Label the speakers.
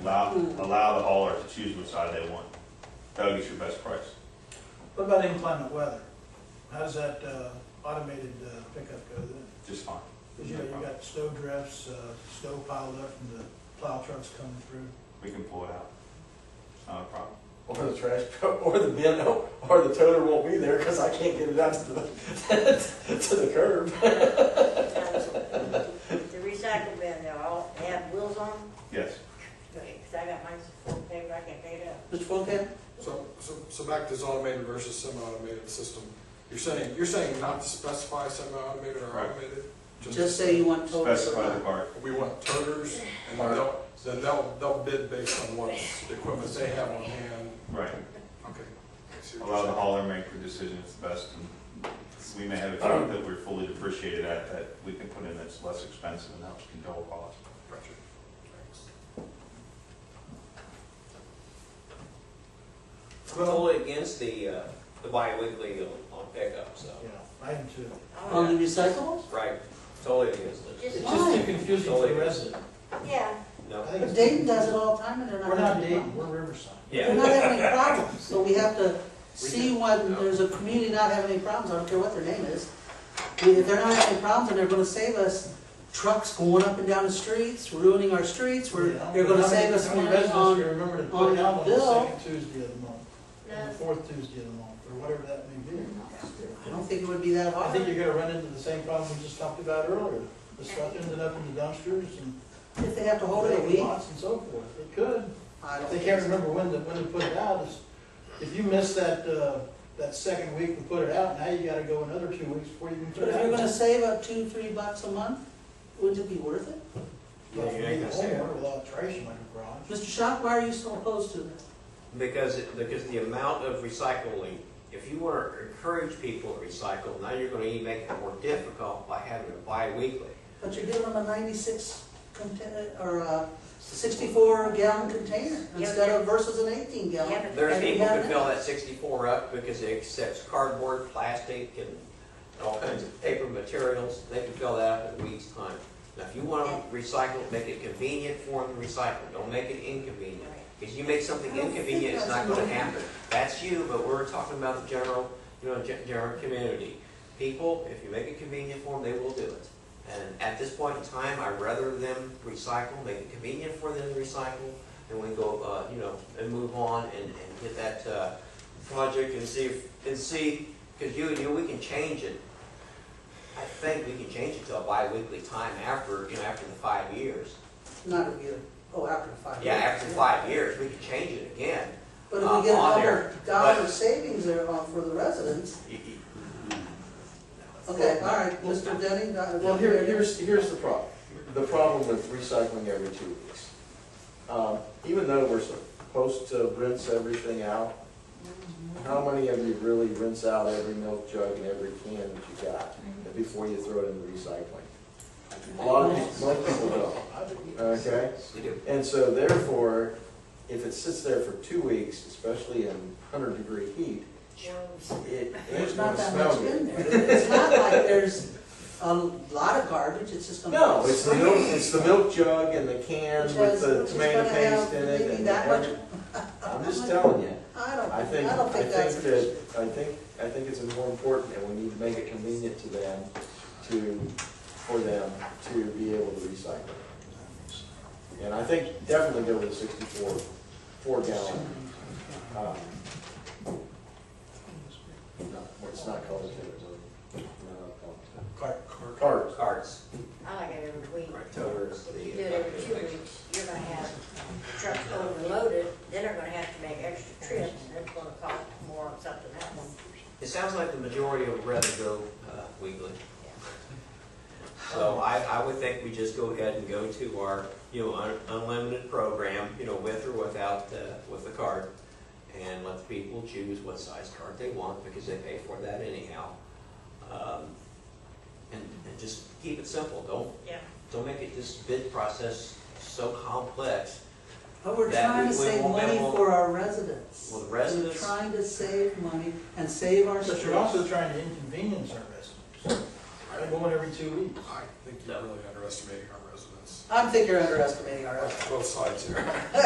Speaker 1: Allow, allow the hauler to choose which side they want. That'll get your best price.
Speaker 2: What about inclement weather? How does that uh, automated uh, pickup go then?
Speaker 1: Just fine.
Speaker 2: Because you know, you got snow drifts, uh, snow piled up from the plow trucks coming through.
Speaker 1: We can pull it out. It's not a problem.
Speaker 3: Or the trash, or the bin, or the toter won't be there because I can't get it out to the, to the curb.
Speaker 4: The recycle bin, they're all, they have wheels on, them,
Speaker 1: Yes.
Speaker 4: because I got mine full of paper, I can pay it up.
Speaker 3: Mr. Funkin?
Speaker 5: So, so, so back to this automated versus semi-automated system. You're saying, you're saying not to specify semi-automated or
Speaker 1: Right.
Speaker 5: automated?
Speaker 3: Just say you want toter.
Speaker 1: Specify the part.
Speaker 5: We want toters, and then they'll, then they'll, they'll bid based on what the equipment they have on hand.
Speaker 1: Right.
Speaker 5: Okay. I see what you're
Speaker 1: Allow the
Speaker 5: saying.
Speaker 1: hauler to make the decision it's best. and We may have a truck that we're fully depreciated at that we can put in that's less expensive and helps control costs.
Speaker 5: Gotcha. Thanks.
Speaker 6: I'm totally against the, uh, the bi-weekly on on pickup, so,
Speaker 2: Yeah, item two.
Speaker 4: Oh,
Speaker 3: On the recyclables?
Speaker 6: right, totally against it.
Speaker 4: Just,
Speaker 2: It's
Speaker 4: one.
Speaker 2: just too confusing for the resident.
Speaker 4: yeah,
Speaker 6: No,
Speaker 2: I think
Speaker 3: But
Speaker 2: it's-
Speaker 3: Dayton does it all the time and they're not.
Speaker 2: We're not
Speaker 3: having a
Speaker 2: dating,
Speaker 3: problem.
Speaker 2: we're Riverside.
Speaker 3: They're
Speaker 6: yeah,
Speaker 3: not having any problems, so we have to see when
Speaker 5: Yeah.
Speaker 3: there's a community not having any problems, I don't care what their name is. I mean, If they're not having any problems, then they're gonna save us trucks going up and down the streets, ruining our streets, we're,
Speaker 2: Yeah.
Speaker 3: they're gonna
Speaker 2: How many-
Speaker 3: save us
Speaker 2: how many
Speaker 3: money
Speaker 2: residents
Speaker 3: on.
Speaker 2: can remember to
Speaker 3: on
Speaker 2: put out on
Speaker 3: bill?
Speaker 2: the second Tuesday of the month, or the
Speaker 4: no,
Speaker 2: fourth Tuesday of the month, or whatever that may be.
Speaker 3: I don't think it would be that
Speaker 2: I think
Speaker 3: hard,
Speaker 2: you're gonna run into the same problem we just talked about earlier. The stuff ended up in the dumpsters and
Speaker 3: if they have to hold it a
Speaker 2: vacant
Speaker 3: week,
Speaker 2: lots and so forth. It could.
Speaker 3: I don't
Speaker 2: They
Speaker 3: think.
Speaker 2: can't
Speaker 3: so.
Speaker 2: remember when to, when to put it out, is, if you miss that, uh, that second week to put it out, now you gotta go another two weeks before you can put
Speaker 3: But
Speaker 2: it
Speaker 3: if you're gonna
Speaker 2: out.
Speaker 3: save up two, three bucks a month, wouldn't it be worth it?
Speaker 2: Well, if you
Speaker 6: Yeah, you
Speaker 2: leave
Speaker 6: gotta
Speaker 2: it home
Speaker 6: stay out.
Speaker 2: or Without trash in your garage.
Speaker 3: Mr. Shock, why are you so opposed to this?
Speaker 6: because, it- because the amount of recycling, if you want to encourage people to recycle, now you're gonna even make it more difficult by having it bi-weekly.
Speaker 3: But you're giving them a ninety-six container, or a sixty-four gallon container instead of versus an eighteen
Speaker 4: yeah,
Speaker 3: gallon.
Speaker 4: but.
Speaker 6: There's
Speaker 3: And we
Speaker 6: people who
Speaker 3: have-
Speaker 6: fill that sixty-four up because it accepts cardboard, plastic, and all kinds of paper materials, they can fill that up in a week's time. Now, if you want to recycle, make it convenient for them to recycle, don't make it inconvenient. Because you make something
Speaker 3: I don't think
Speaker 6: inconvenient, it's not
Speaker 3: that's
Speaker 6: gonna
Speaker 3: right.
Speaker 6: happen. That's you, but we're talking about the general, you know, gen- general community. People, if you make it convenient for them, they will do it. And at this point in time, I'd rather them recycle, make it convenient for them to recycle, and we go, uh, you know, and move on and, and get that, uh, project and see, if- and see, because you, you, we can change it. I think we can change it to a bi-weekly time after, you know, after the five years.
Speaker 3: Not a year, oh, after five.
Speaker 6: Yeah,
Speaker 3: years.
Speaker 6: after five years, we can change it again.
Speaker 3: But if
Speaker 6: uh,
Speaker 3: we get a
Speaker 6: on
Speaker 3: dollar,
Speaker 6: there,
Speaker 3: dollar
Speaker 6: but-
Speaker 3: savings there on, for the residents,
Speaker 6: You- you-
Speaker 3: okay, all right,
Speaker 6: Well,
Speaker 3: Mr. Denny. Dr.
Speaker 7: Well, here,
Speaker 3: Denny.
Speaker 7: here's, here's the problem, the problem with recycling every two weeks. Um, Even though we're supposed to rinse everything out, how many of you really rinse out every milk jug and every can that you got
Speaker 3: Mm-hmm.
Speaker 7: before you throw it in the recycling? A lot of people, most people don't, okay?
Speaker 6: You do.
Speaker 7: And so therefore, if it sits there for two weeks, especially in hundred degree heat, it,
Speaker 3: There's
Speaker 7: it's
Speaker 3: not
Speaker 7: gonna
Speaker 3: that
Speaker 7: smell
Speaker 3: much
Speaker 7: good.
Speaker 3: in there. It's not like there's a lot of garbage, it's just gonna.
Speaker 7: No, it's the milk, it's the milk jug and the can
Speaker 3: Which
Speaker 7: with
Speaker 3: has-
Speaker 7: the
Speaker 3: which is
Speaker 7: tomato
Speaker 3: gonna have
Speaker 7: paste in it.
Speaker 3: maybe
Speaker 7: and
Speaker 3: that much-
Speaker 7: every- I'm just telling you,
Speaker 3: I don't,
Speaker 7: I think,
Speaker 3: I
Speaker 7: I
Speaker 3: don't
Speaker 7: think
Speaker 3: think that's. an
Speaker 7: that,
Speaker 3: issue.
Speaker 7: I think, I think it's more important and we need to make it convenient to them to, for them to be able to recycle. And I think definitely go with the sixty-four, four gallon. um, no, It's not colored, it's, uh, no,
Speaker 2: Cart.
Speaker 7: colored. Cards.
Speaker 6: Carts,
Speaker 4: I like it every week.
Speaker 6: right, toters,
Speaker 4: If you
Speaker 6: the.
Speaker 4: do it every two weeks, you're gonna have trucks overloaded, then they're gonna have to make extra trips, and it's gonna cost more on something else.
Speaker 6: It sounds like the majority would rather go uh, weekly. So I, I would think we just go ahead and go to our, you know, un- unlimited program, you know, with or without, uh, with the card. And let the people choose what size card they want because they pay for that anyhow. Um, And, and just keep it simple. Don't,
Speaker 4: Yeah.
Speaker 6: don't make it this bid process so complex
Speaker 3: But we're
Speaker 6: that
Speaker 3: trying
Speaker 6: we-
Speaker 3: to
Speaker 6: we
Speaker 3: save
Speaker 6: won't- that
Speaker 3: money
Speaker 6: won't-
Speaker 3: for our residents.
Speaker 6: Well, the residents-
Speaker 3: We're trying to save money and save our
Speaker 2: But
Speaker 3: streets.
Speaker 2: you're also trying to inconvenience our residents. I'm going every two weeks.
Speaker 5: I think you're really underestimating our residents,
Speaker 3: I think you're underestimating our residents.
Speaker 5: both sides here.